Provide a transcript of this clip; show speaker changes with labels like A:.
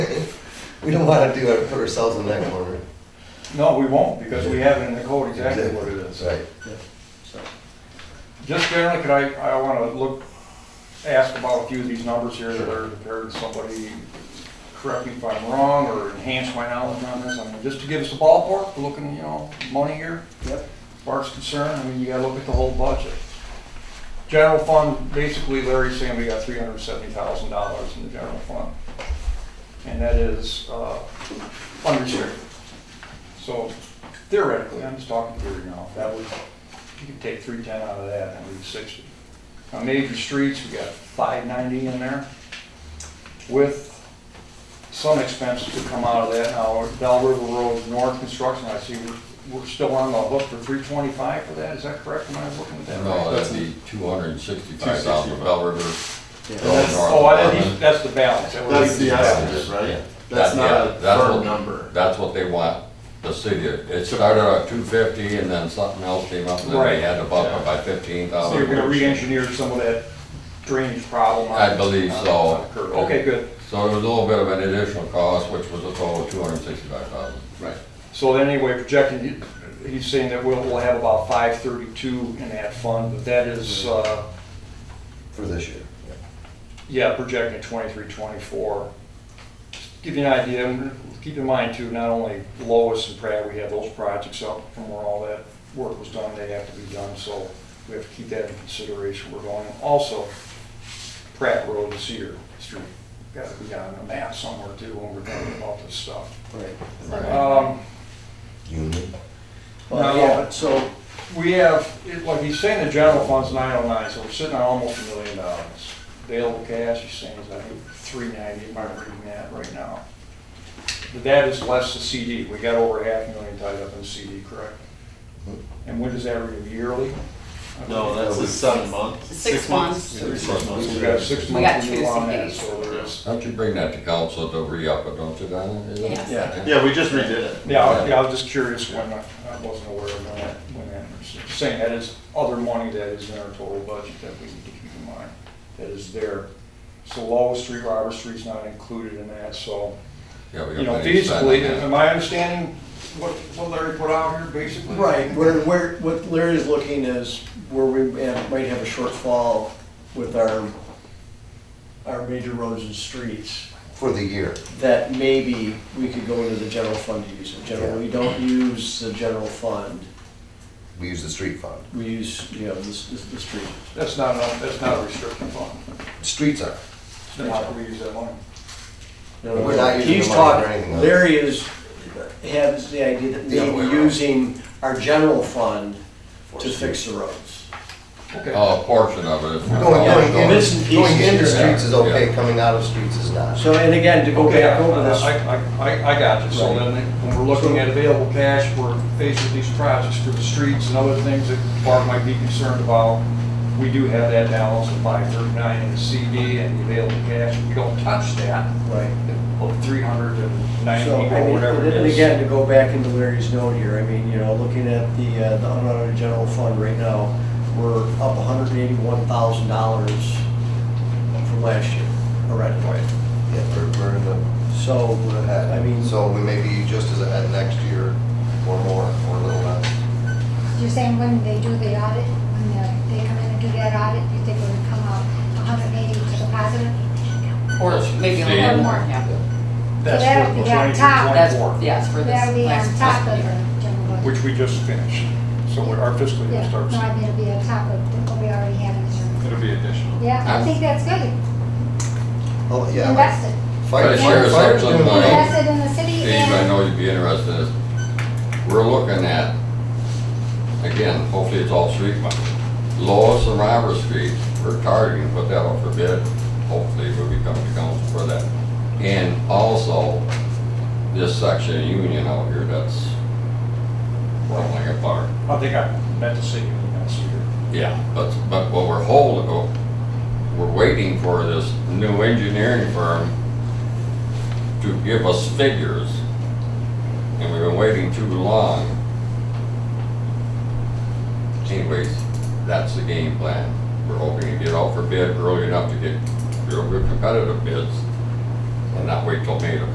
A: We don't wanna do, our- put ourselves in that corner.
B: No, we won't, because we have it in the code exactly what it is.
A: Right.
B: Just generally, could I, I wanna look, ask about a few of these numbers here that are, prepared. somebody correct me if I'm wrong, or enhance my knowledge on this, I mean, just to give us a ballpark, we're looking, you know, money here.
C: Yep.
B: Bart's concerned, I mean, you gotta look at the whole budget. General fund, basically Larry's saying we got three hundred and seventy thousand dollars in the general fund. And that is, uh, unrestricted. So theoretically, I'm just talking theory now, if that was, you could take three ten out of that and leave sixty. On major streets, we got five ninety in there with some expenses to come out of that. Now, Bell River Road North construction, I see we're, we're still on the hook for three twenty-five for that, is that correct? Am I looking at that right?
D: No, that'd be two hundred and sixty-five thousand for Bell River.
B: That's- Oh, I- that's, that's the balance. That would
C: That's
B: be-
C: the estimate, right?
D: That-
C: That's not
D: yeah,
C: a
D: that's what-
C: firm number.
D: That's what they want, the city, it started at two fifty and then something else came up and then
B: Right.
D: they had to bump it by fifteen
B: So you're gonna
D: thousand.
B: re-engineer some of that drainage problem. on-
D: I believe so.
B: curve. Okay, good.
D: So it was a little bit of an additional cost, which was a total of two hundred and sixty-five thousand.
C: Right.
B: So anyway, projected, he- he's saying that we'll, we'll have about five thirty-two in that fund, but that is, uh,
A: For this year. yeah.
B: yeah, projecting twenty-three, twenty-four. Just Give you an idea, and keep in mind too, not only Lois and Pratt, we have those projects up from where all that work was done, they have to be done, so we have to keep that in consideration, we're going, also Pratt Road and Cedar Street, gotta be on a map somewhere too, when we're talking about this stuff.
C: Right. Uh,
B: Um,
A: Union.
C: Well,
B: No.
C: yeah, but so,
B: We have, it- like he's saying, the general fund's nine oh nine, so we're sitting on almost a million dollars. Available cash, he's saying, is I think three ninety, if I'm reading that right now. But that is less the CD, we got over half a million tied up in CD, correct? And when does that renew, yearly?
C: no, that's a seven month.
E: Six months.
C: Every six months.
B: We've got six
E: We got
B: months to
E: two
B: do on that,
E: CDs.
B: so there is.
D: Don't you bring that to council to re-up it, don't you, Donna? Is it?
E: Yes.
C: Yeah, yeah, we just redid it.
B: Yeah, I- yeah, I was just curious when, I I wasn't aware of that, when that was, saying that is other money that is in our total budget that we need to keep in mind, that is there. So Lowell Street, Robert Street's not included in that, so,
D: Yeah, we
B: you
D: got
B: know,
D: plenty to spend on
B: feasibly,
D: that.
B: am I understanding what, what Larry put out here, basically?
C: Right, where, where, what Larry's looking is where we have- might have a shortfall with our, our major roads and streets,
A: For the year.
C: that maybe we could go into the general fund to use it. Generally, we don't use the general fund,
A: We use the street fund.
C: we use, you know, the, s- the the street.
B: That's not, a- that's not a restricted fund,
A: Streets are.
B: then how can we use that money?
C: No, no,
A: We're not using
C: he's
A: the money for
C: talking-
A: anything, though.
C: Larry is, has the idea that
A: The other way
C: maybe
A: around.
C: using our general fund to fix the roads.
B: Okay.
D: Oh, a portion of it.
A: Going, going,
C: yeah,
A: in-
C: bits and
A: going
C: pieces,
A: into
C: yeah,
A: streets is okay,
D: yeah.
A: coming out of streets is not.
C: So, and again, to go
B: Okay, I,
C: back over this.
B: I, I- I got you, so then, when we're looking at available cash, we're faced with these projects for the streets and other things that Bart might be concerned about. We do have that balance of five thirty-nine in the CD and the available cash, we don't touch that,
C: Right.
B: of three hundred and ninety
C: So, I
B: or
C: mean,
B: whatever it
C: and
B: is.
C: again, to go back into Larry's note here, I mean, you know, looking at the, uh, the unaudited general fund right now, we're up hundred and eighty-one thousand dollars from last year already.
A: Yeah, we're, we're in the,
C: So,
A: we're
C: I mean,
A: ahead. So we may be just as ahead next year or more, or a little less.
F: You're saying when they do the audit, when they- they come in and do that audit, you think we're gonna come out 180 to the positive?
E: Or maybe a little
D: Steve?
E: more, yeah.
B: That's
F: that'll
B: for the
F: be on
B: 23,
F: top.
B: 24,
E: That's, yes, for this
F: That'll be on
E: last
F: top of the
E: year.
F: general budget.
B: Which we just finished, so our fiscal year
F: Yeah,
B: starts.
F: no, I mean, it'll be on top of what we already have in the general.
G: It'll be additional.
F: Yeah, I think that's good.
A: Oh, yeah.
F: Invest it.
A: Fire,
D: But here's
A: fire's doing
D: something
A: well.
D: like-
F: Invest it in the city
D: Steve, I
F: and,
D: know you'd be interested in this. We're looking at, again, hopefully it's all street money. Lois and Robert Street, we're targeting, put that up for bid. Hopefully we'll be coming to council for that. And also, this section of Union out here that's running like a bar.
B: I think I meant to say, you know, so you're-
D: Yeah. But, but what we're holding, we're waiting for this new engineering firm to give us figures. And we've been waiting too long. Anyways, that's the game plan. We're hoping to get out for bid early enough to get real good competitive bids and not wait till May to